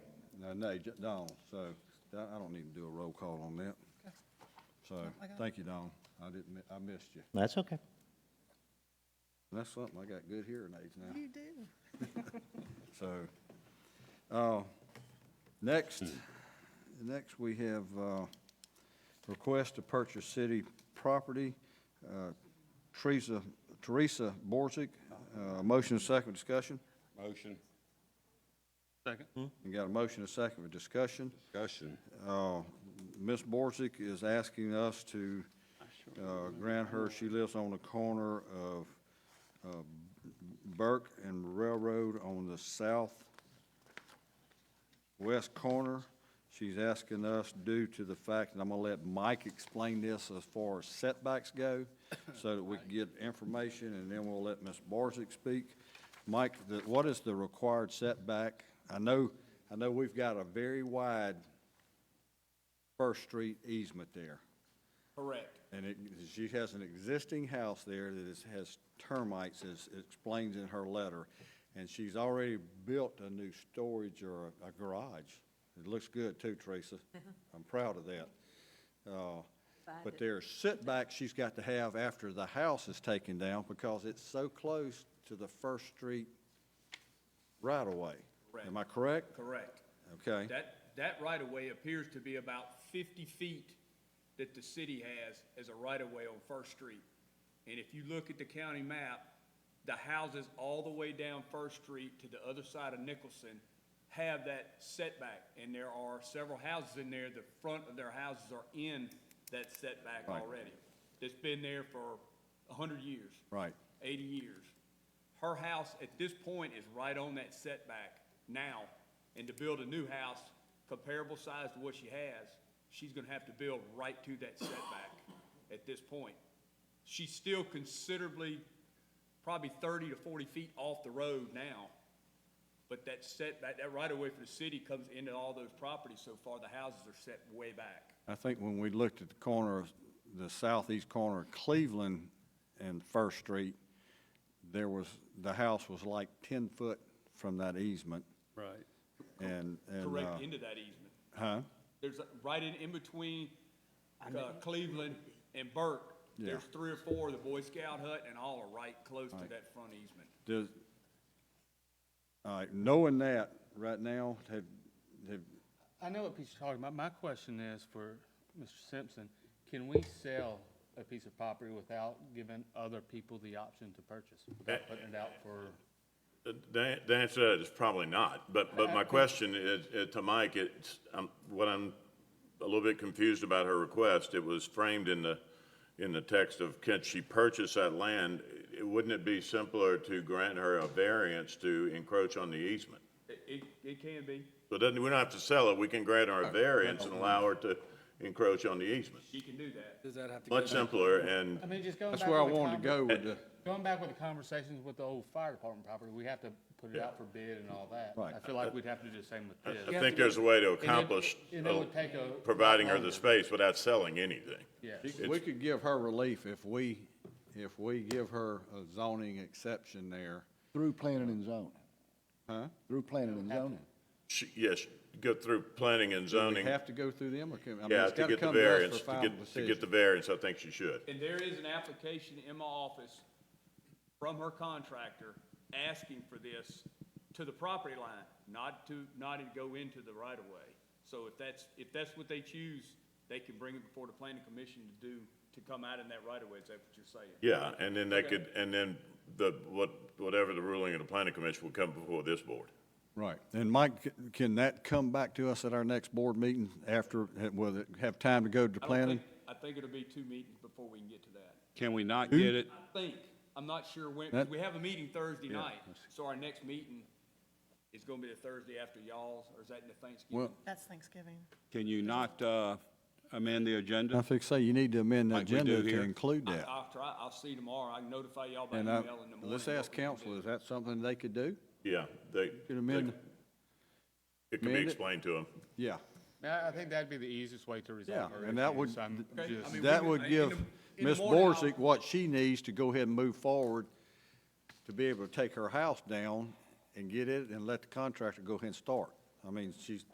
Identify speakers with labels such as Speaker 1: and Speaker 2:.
Speaker 1: Uh, Nay, J- Dawn, so I I don't need to do a roll call on that. So, thank you, Dawn. I didn't, mi- I missed you.
Speaker 2: That's okay.
Speaker 1: That's something, I got good hearing aids now.
Speaker 3: You do.
Speaker 1: So, uh, next, next we have, uh, request to purchase city property. Uh, Teresa, Teresa Borzick, uh, motion and second discussion.
Speaker 4: Motion.
Speaker 5: Second.
Speaker 1: You got a motion and second for discussion.
Speaker 4: Discussion.
Speaker 1: Uh, Ms. Borzick is asking us to, uh, grant her, she lives on the corner of, uh, Burke and Railroad on the southwest corner. She's asking us due to the fact, and I'm gonna let Mike explain this as far as setbacks go, so that we can get information, and then we'll let Ms. Borzick speak. Mike, the, what is the required setback? I know, I know we've got a very wide First Street easement there.
Speaker 6: Correct.
Speaker 1: And it, she has an existing house there that is, has termites, as it explains in her letter. And she's already built a new storage or a- a garage. It looks good too, Teresa. I'm proud of that. Uh, But there are setbacks she's got to have after the house is taken down because it's so close to the First Street right-of-way. Am I correct?
Speaker 6: Correct.
Speaker 1: Okay.
Speaker 6: That, that right-of-way appears to be about fifty feet that the city has as a right-of-way on First Street. And if you look at the county map, the houses all the way down First Street to the other side of Nicholson have that setback. And there are several houses in there, the front of their houses are in that setback
Speaker 1: Right.
Speaker 6: already. That's been there for a hundred years.
Speaker 1: Right.
Speaker 6: 80 years. Her house at this point is right on that setback now, and to build a new house comparable size to what she has, she's gonna have to build right to that setback at this point. She's still considerably, probably 30 to 40 feet off the road now, but that setback, that right-of-way for the city comes into all those properties so far, the houses are set way back.
Speaker 1: I think when we looked at the corner, of the southeast corner of Cleveland and First Street, there was, the house was like ten foot from that easement,
Speaker 5: Right.
Speaker 1: and, and, uh,
Speaker 6: Correct into that easement.
Speaker 1: huh?
Speaker 6: There's, a- right in, in between uh, Cleveland and Burke, there's
Speaker 1: Yeah.
Speaker 6: three or four, the Boy Scout hut and all are right close to that front easement.
Speaker 1: Does, all right, knowing that right now, have, have,
Speaker 5: I know what piece you're talking about. My question is for Mr. Simpson, can we sell a piece of property without giving other people the option to purchase? Without putting it out for,
Speaker 7: The- The the answer to that is probably not, but, but my question is, is to Mike, it's, um, what I'm a little bit confused about her request, it was framed in the, in the text of, can she purchase that land? It- Wouldn't it be simpler to grant her a variance to encroach on the easement?
Speaker 6: It, it, it can be.
Speaker 7: So it doesn't, we don't have to sell it, we can grant her a variance and allow her to encroach on the easement.
Speaker 6: She can do that.
Speaker 8: Does that have to go
Speaker 7: Much
Speaker 8: back?
Speaker 7: simpler, and
Speaker 5: I mean, just going back.
Speaker 1: that's where I
Speaker 5: with the
Speaker 1: wanted to go
Speaker 5: conver-
Speaker 1: with the,
Speaker 5: Going back with the conversations with the old fire department property, we have to put it out for bid and all that.
Speaker 1: Right.
Speaker 5: I feel like we'd have to do the same with
Speaker 7: I-
Speaker 5: this.
Speaker 7: I think there's a way to
Speaker 5: And it-
Speaker 7: accomplish uh,
Speaker 5: And it would take a.
Speaker 7: providing her the
Speaker 5: longer.
Speaker 7: space without selling anything.
Speaker 5: Yes.
Speaker 1: she could- we could give her relief if we, if we give her a zoning exception there.
Speaker 9: Through planning and zoning. Huh? Through planning and zoning.
Speaker 7: She, yes, go through planning and
Speaker 1: Do we
Speaker 7: zoning.
Speaker 1: have to go through them, or can, I mean,
Speaker 7: Yeah,
Speaker 1: it's
Speaker 7: to
Speaker 1: gotta
Speaker 7: get the
Speaker 1: come to
Speaker 7: variance,
Speaker 1: us for
Speaker 7: to
Speaker 1: final decision.
Speaker 7: get, to get the variance, I think she should.
Speaker 6: And there is an application in my office from her contractor asking for this to the property line, not to, not to go into the right of way. So if that's, if that's what they choose, they can bring it before the planning commission to do, to come out in that right of way, is that what you're saying?
Speaker 7: Yeah, and then they could, and then the, what, whatever the ruling of the planning commission will come before this board.
Speaker 1: Right, and Mike, c- can that come back to us at our next board meeting after, will it have time to go to
Speaker 6: I don't
Speaker 1: planning?
Speaker 6: think- I think it'll be two meetings before we can get to that.
Speaker 8: Can we not get it?
Speaker 6: I think, I'm not sure when, 'cause
Speaker 1: That-
Speaker 6: we have a meeting Thursday night, so our next meeting is gonna be the Thursday after y'all's, or is that in the
Speaker 1: Well,
Speaker 6: Thanksgiving?
Speaker 3: That's Thanksgiving.
Speaker 8: Can you not uh, amend the
Speaker 1: I
Speaker 8: agenda?
Speaker 1: think, say, you need to amend the
Speaker 8: Like we
Speaker 1: agenda
Speaker 8: do
Speaker 1: to
Speaker 8: here.
Speaker 1: include
Speaker 6: I-
Speaker 1: that.
Speaker 6: I'll try, I'll see tomorrow, I can notify y'all by
Speaker 1: And I,
Speaker 6: email in the morning.
Speaker 1: let's
Speaker 6: what
Speaker 1: ask
Speaker 6: we can do.
Speaker 1: council, is that something they could do?
Speaker 7: Yeah, they,
Speaker 1: Could amend,
Speaker 7: it can
Speaker 1: amend
Speaker 7: be
Speaker 1: it?
Speaker 7: explained to them.
Speaker 1: yeah,
Speaker 5: I, I think that'd be the easiest way to
Speaker 1: yeah,
Speaker 5: resolve her
Speaker 1: and that
Speaker 5: issues.
Speaker 1: would,
Speaker 5: I'm
Speaker 1: th-
Speaker 6: Okay, I
Speaker 5: just-
Speaker 6: mean,
Speaker 1: that
Speaker 6: we-
Speaker 1: would
Speaker 6: in
Speaker 1: give
Speaker 6: the- in the
Speaker 1: Ms.
Speaker 6: morning, I'll-
Speaker 1: Borzick what she needs to go ahead and move forward to be able to take her house down and get it and let the contractor go ahead and start. I mean, she's,